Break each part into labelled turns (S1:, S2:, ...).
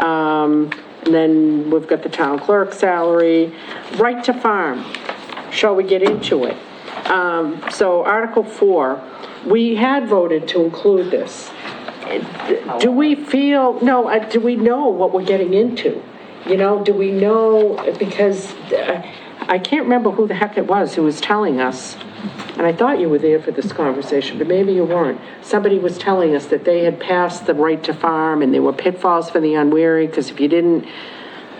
S1: Um, And then we've got the town clerk salary, right to farm. Shall we get into it? Um, so Article four, we had voted to include this. Do we feel, no, uh, do we know what we're getting into? You know, do we know, because uh, I can't remember who the heck it was who was telling us, and I thought you were there for this conversation, but maybe you weren't. Somebody was telling us that they had passed the right to farm, and there were pitfalls for the unwary, because if you didn't,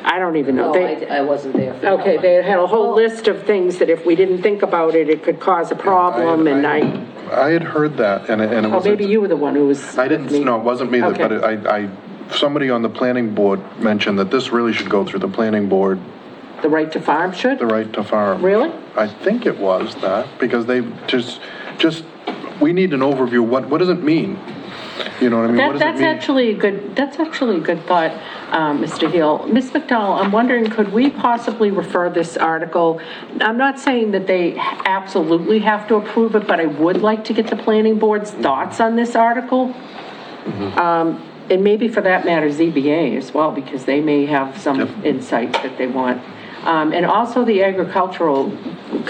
S1: I don't even know.
S2: No,
S1: They-
S2: I, I wasn't there for that
S1: Okay,
S2: one.
S1: they had a whole list of things that if we didn't think about it, it could cause a problem, and I,
S3: I had heard that, and it and it
S1: oh,
S3: was.
S1: maybe you were the one who was.
S3: I didn't, no, it wasn't me, that- but
S1: Okay.
S3: I, I, somebody on the planning board mentioned that this really should go through the planning board,
S1: The right to farm should?
S3: the right to farm.
S1: Really?
S3: I think it was that, because they just, just, we need an overview, what, what does it mean? You know what I mean? What
S4: That,
S3: does it
S4: that's
S3: mean?
S4: actually a good, that's actually a good thought, um, Mr. Hill. Ms. McDowell, I'm wondering, could we possibly refer this article? I'm not saying that they absolutely have to approve it, but I would like to get the planning board's thoughts on this article.
S3: Mm-hmm.
S4: Um, And maybe for that matter, ZBA as well, because they may have some insight that they want. Um, And also the agricultural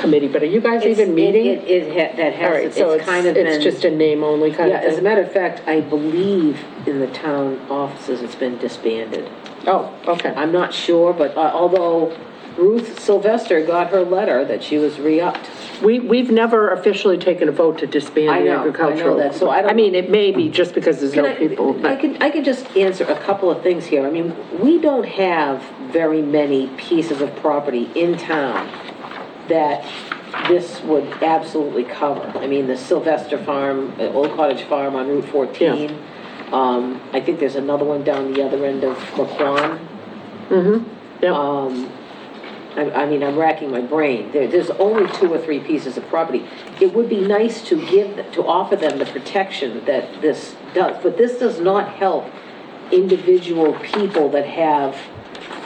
S4: committee, but are you guys
S2: It's-
S4: even meeting?
S2: It, it, ha- that
S1: All right,
S2: has,
S1: so
S2: it's
S1: it's,
S2: kind of
S1: it's just
S2: been,
S1: a name only kind
S2: yeah,
S1: of
S2: as a
S1: thing?
S2: matter of fact, I believe in the town offices, it's been disbanded.
S1: Oh, okay.
S2: I'm not sure, but uh, although Ruth Sylvester got her letter that she was re-upped.
S1: We, we've never officially taken a vote to
S2: I
S1: disband the
S2: know, I know
S1: agricultural.
S2: that, so I don't-
S1: mean, it may be just because there's
S2: Can
S1: no
S2: I-
S1: people,
S2: I
S1: but,
S2: can, I can just answer a couple of things here. I mean, we don't have very many pieces of property in town that this would absolutely cover. I mean, the Sylvester Farm, uh, Old Cottage Farm on Route 14. Um, I think there's another one down the other end of McQuon.
S1: yep,
S2: Oh. I, I mean, I'm racking my brain. There, there's only two or three pieces of property. It would be nice to give, to offer them the protection that this does, but this does not help individual people that have,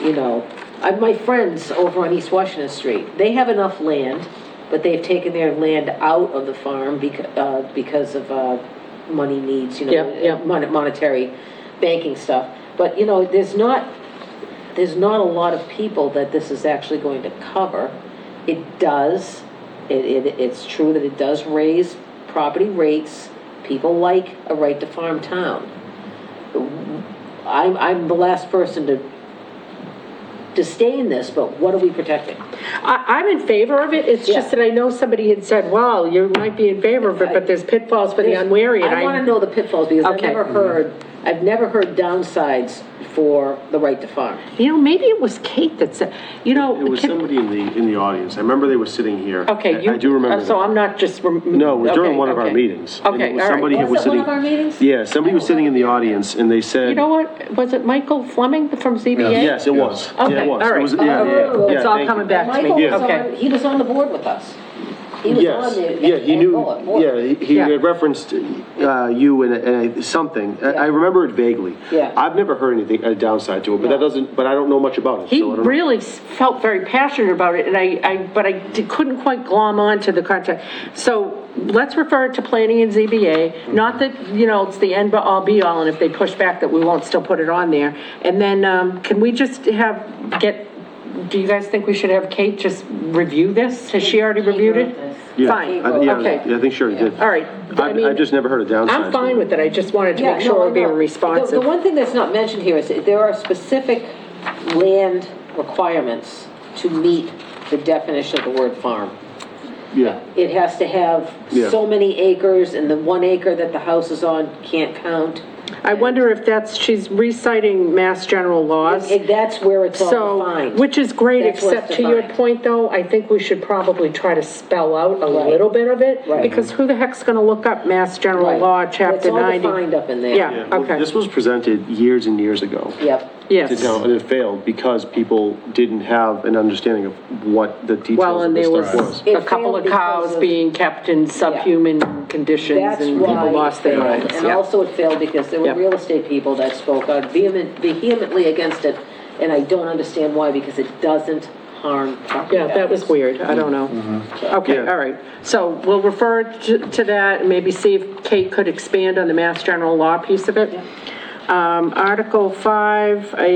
S2: you know, I, my friends over on East Washington Street, they have enough land, but they've taken their land out of the farm becau- uh, because of, uh, money needs, you know,
S1: Yep, yep.
S2: mon- monetary banking stuff. But, you know, there's not, there's not a lot of people that this is actually going to cover. It does, it, it, it's true that it does raise property rates. People like a right to farm town. I'm, I'm the last person to disdain this, but what are we protecting?
S1: I, I'm in favor of it, it's just
S2: Yeah.
S1: that I know somebody had said, well, you might be in favor of it, but there's pitfalls for the unwary, and I.
S2: I want to know the pitfalls because I've
S1: Okay.
S2: never
S5: Mm-hmm.
S2: heard, I've never heard downsides for the right to farm.
S1: You know, maybe it was Kate that said, you know.
S5: It was
S1: Kate-
S5: somebody in the, in the audience. I remember they were sitting here. I-
S1: Okay, you.
S5: I do remember
S1: uh, So
S5: that.
S1: I'm not just. rem-
S5: No, it was during
S1: okay,
S5: one of our
S1: okay.
S5: meetings. and it
S1: Okay,
S5: was
S1: all
S5: somebody
S1: right.
S5: who
S2: Was it one
S5: sitting-
S2: of our meetings?
S5: Yeah, somebody was sitting in the audience and they said.
S4: You know what, was it Michael Fleming from ZBA?
S5: Yes, it was. Yeah, it
S4: Okay,
S5: was.
S4: all
S5: It
S4: right.
S5: was- yeah, yeah,
S2: Oh,
S5: yeah,
S1: It's all
S5: thank you.
S1: coming back to me.
S2: Michael was
S1: Okay.
S2: on, he was on the board with us. He was on
S5: Yes,
S2: the.
S5: yeah, he
S2: and
S5: knew,
S2: bullet board.
S5: yeah, he- he
S1: Yeah.
S5: had referenced uh, you and- and I- something. I- I
S2: Yeah.
S5: remember it vaguely.
S2: Yeah.
S5: I've never heard anything, a downside to it, but that doesn't, but I don't know much about it.
S4: He
S5: so I don't know.
S4: really s- felt very passionate about it, and I, I, but I d- couldn't quite glom on to the contract. So let's refer it to planning and ZBA,
S5: Mm-hmm.
S4: not that, you know, it's the end but all be all, and if they push back that we won't still put it on there. And then, um, can we just have, get, do you guys think we should have Kate just review this? Has she already reviewed it?
S5: Yeah,
S4: Fine,
S5: I- yeah,
S4: okay,
S5: I think sure he did.
S4: all right. I
S5: I've, I've
S4: mean,
S5: just never heard a downside.
S1: I'm fine with it, I just wanted to
S2: Yeah,
S1: make
S2: no,
S1: sure
S2: I
S1: we're being
S2: know. The-
S1: responsive.
S2: The one thing that's not mentioned here is that there are specific land requirements to meet the definition of the word farm.
S5: Yeah.
S2: It has to have
S5: Yeah.
S2: so many acres, and the one acre that the house is on can't count.
S1: I wonder if that's, she's reciting mass general laws.
S2: And that's where it's all
S1: So,
S2: defined.
S1: which is great,
S2: That's what's
S1: except to your
S2: defined.
S1: point, though, I think we should probably try to spell out a
S2: Right.
S1: little bit of it.
S2: Right.
S1: Because who the heck's gonna look up Mass General
S2: Right.
S1: Law, Chapter 90?
S2: It's all defined up in there.
S1: Yeah.
S5: Yeah, well,
S1: Okay.
S5: This was presented years and years ago.
S2: Yep.
S5: To
S1: Yes.
S5: town, and it failed because people didn't have an understanding of what the
S1: Well,
S5: details of
S1: and
S5: this
S1: there
S5: stuff
S1: was
S5: was.
S2: It
S1: a couple
S2: failed
S1: of
S2: because
S1: cows
S2: of-
S1: being kept in subhuman conditions
S2: That's
S1: and
S2: why
S1: people
S2: it
S1: lost their
S2: failed.
S1: lives.
S2: And
S1: Yeah.
S2: also it failed because there were
S1: Yeah.
S2: real estate people that spoke out vehement, vehemently against it, and I don't understand why, because it doesn't harm property
S1: Yeah, that was
S2: values.
S1: weird, I don't know. Okay,
S5: Yeah.
S1: all right, so we'll refer to to that, and maybe see if Kate could expand on the Mass General Law piece of it. Um, Article 5, I